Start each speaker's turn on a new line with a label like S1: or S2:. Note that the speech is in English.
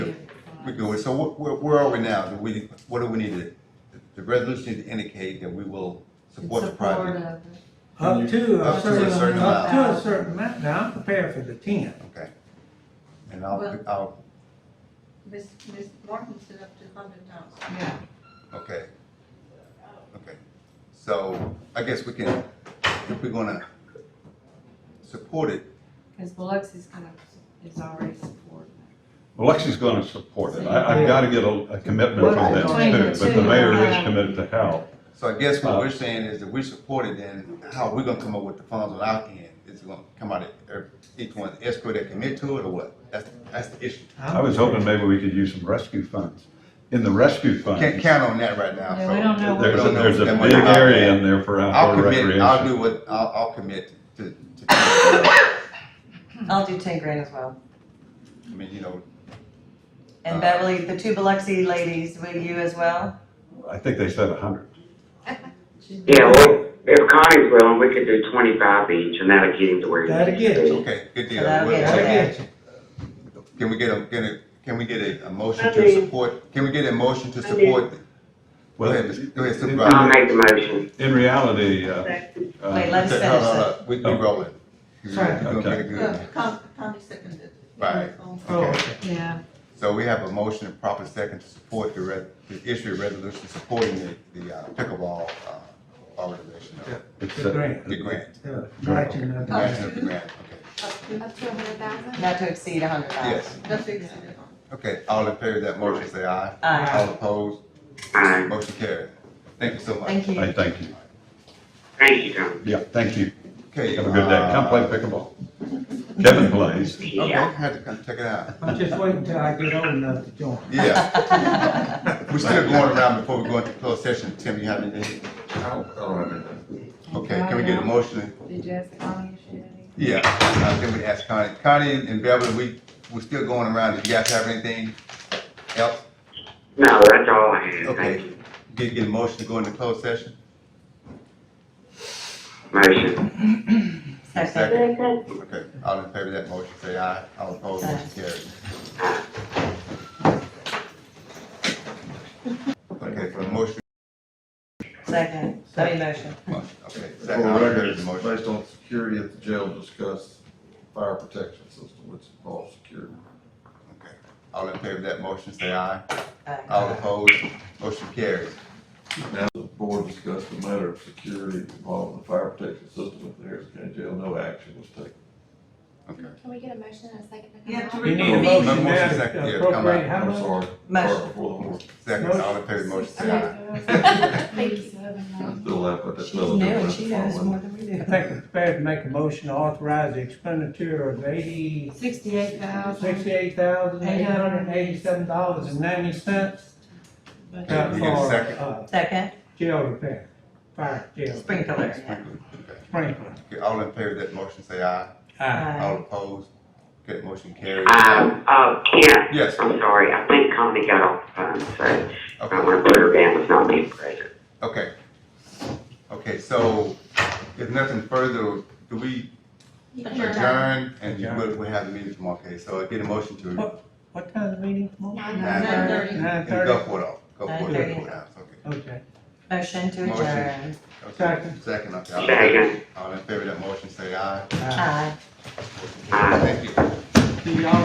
S1: We're good. So wh- where, where are we now? Do we, what do we need to, the resolution needs to indicate that we will support the project?
S2: of it.
S3: Up to a
S1: Up to a
S3: certain,
S1: certain
S3: up to a
S2: amount.
S3: certain amount. Now, I'm prepared for the ten.
S1: Okay. And I'll,
S2: Well-
S1: I'll,
S2: Ms. Ms. Martin said up to a hundred thousand.
S3: Yeah.
S1: okay. Okay. So I guess we can, if we're gonna support it,
S2: Because Biloxi's kind of, is already supporting.
S4: Biloxi's gonna support it. I, I've gotta get a, a commitment from them
S2: Between the
S4: too, but the
S2: two,
S4: mayor
S2: uh,
S4: is committed to help.
S1: so I guess what we're saying is that we support it, then how are we gonna come up with the funds on our end? Is it gonna come out of every- each one's escrow that commit to it or what? That's, that's the issue.
S3: I'm
S4: I was hoping maybe we could use some rescue funds. In the rescue funds,
S1: Can't
S4: there's,
S1: count on that right now.
S2: Yeah, we
S1: so-
S2: don't know
S1: we
S4: a-
S1: don't know
S4: there's a
S1: that
S4: big
S1: much about
S4: area
S1: that.
S4: in there for
S1: I'll
S4: outdoor
S1: commit, I'll
S4: recreation.
S1: do what, I'll, I'll commit to, to, I
S5: I'll do ten grand as well.
S1: mean, you know,
S5: And Beverly, the two Biloxi ladies, will you as well?
S4: I think they said a hundred.
S6: Yeah, well, if Connie's willing, we could do twenty-five each, and that'll get him to where he
S3: That'll
S6: needs
S3: get
S6: to
S3: you.
S6: be.
S1: okay, good deal.
S5: That'll
S1: We'll-
S5: get
S3: Gotta get you.
S1: Can we get a, can a, can we get a, a motion
S7: I
S1: to
S7: mean-
S1: support, can we get a motion to
S7: mean-
S1: support? Go
S4: Well,
S1: ahead, Ms. go ahead,
S6: I'll
S1: Supervisor.
S6: make the motion.
S4: in reality, uh,
S7: Second.
S4: uh,
S5: Wait, let us
S1: Okay, hold on,
S5: finish
S1: hold on. We, we rolling. You're
S3: Sorry.
S1: gonna get it good.
S2: Connie, Connie seconded. it.
S1: Right.
S3: Oh, okay.
S2: Yeah.
S1: So we have a motion and proper second to support the re, to issue a resolution supporting the, the uh, pickleball, uh, organization, uh,
S4: it's
S3: The
S4: a-
S3: grant.
S1: the grant,
S3: Yeah, got you, nothing.
S1: the national grant, okay.
S2: Up to,
S8: Up to a hundred thousand?
S5: not to exceed a hundred
S1: Yes,
S5: thousand.
S2: that's exceeded on.
S1: okay, all in favor of that motion, say aye.
S5: Aye.
S1: All opposed?
S6: Aye.
S1: Motion carried. Thank you so much.
S5: Thank you.
S4: I thank you.
S6: Thank you, Connie.
S4: Yeah, thank you.
S1: Okay.
S4: Have a good day. Come play
S1: uh,
S4: pickleball. Kevin plays.
S1: Okay,
S6: Yeah.
S1: I had to come check it out.
S3: I'm just waiting till I get old enough to join.
S1: Yeah. We're still going around before we go into closed session. Tim, you have anything? Okay, can we get a motion?
S2: Did you ask Connie if she had any?
S1: Yeah, uh, then we ask Connie. Connie and Beverly, we, we're still going around. Do you guys have anything else?
S6: No, that's all I had. Thank
S1: Okay.
S6: you.
S1: Did get a motion to go into closed session?
S6: Motion.
S5: Second.
S1: Second. Okay, all in favor of that motion, say aye. All opposed, motion carried. Okay, for the motion,
S5: Second. I mean motion.
S1: okay.
S9: For
S1: second,
S9: the
S1: all in
S9: record,
S1: favor of
S9: it's
S1: the motion.
S9: based on security at the jail, discuss fire protection system, which involves security.
S1: Okay. All in favor of that motion, say aye.
S5: Aye.
S1: All opposed, motion carries.
S9: Now, the board discussed the matter of security involving the fire protection system at the Harris County Jail, no action was taken.
S1: Okay.
S8: Can we get a motion and a second? to come
S2: You have
S8: out?
S2: to
S3: You need a
S1: Motion,
S3: motion now
S1: second, yeah, come
S3: to
S1: on.
S3: appropriate how
S9: I'm
S3: much?
S9: sorry.
S5: Motion.
S9: Sorry, Before the board,
S1: Second, all in favor of the motion, say aye.
S8: Thank you.
S9: I'm still laughing at that
S5: She's
S9: little
S5: new,
S9: difference.
S5: she knows more than we
S3: I
S5: do.
S3: think I'm prepared to make a motion to authorize the expenditure of eighty,
S2: Sixty-eight thousand.
S3: sixty-eight thousand, eight hundred and eighty-seven dollars and ninety cents
S1: Okay, we
S3: for,
S1: get a second.
S3: uh,
S5: Second,
S3: jail repair, fire jail.
S5: sprinkler. yeah.
S1: Okay.
S3: Sprinkler.
S1: Okay, all in favor of that motion, say aye.
S3: Aye.
S1: All
S5: Aye.
S1: opposed, that motion carries.
S6: Um, uh, Kent,
S1: Yes,
S6: I'm sorry, I think Connie got off the phone, so I
S1: okay,
S6: want to put her down as not being present.
S1: okay. Okay, so if nothing further, do we adjourn and we'll, we'll have the meeting tomorrow, okay? So I get a motion to,
S3: What time's the meeting tomorrow?
S8: Nine
S1: Nine
S8: thirty.
S2: thirty.
S3: Nine
S1: and go
S3: thirty?
S1: for it all, go for it, go for it out, okay.
S3: Okay.
S5: Motion to
S1: Motion.
S5: adjourn.
S1: Okay,
S3: Second.
S1: second, okay. all in favor-
S6: Second.
S3: Ah.
S1: All in favor of that motion, say aye.
S3: Aye.
S5: Aye.
S1: Thank you.
S3: See y'all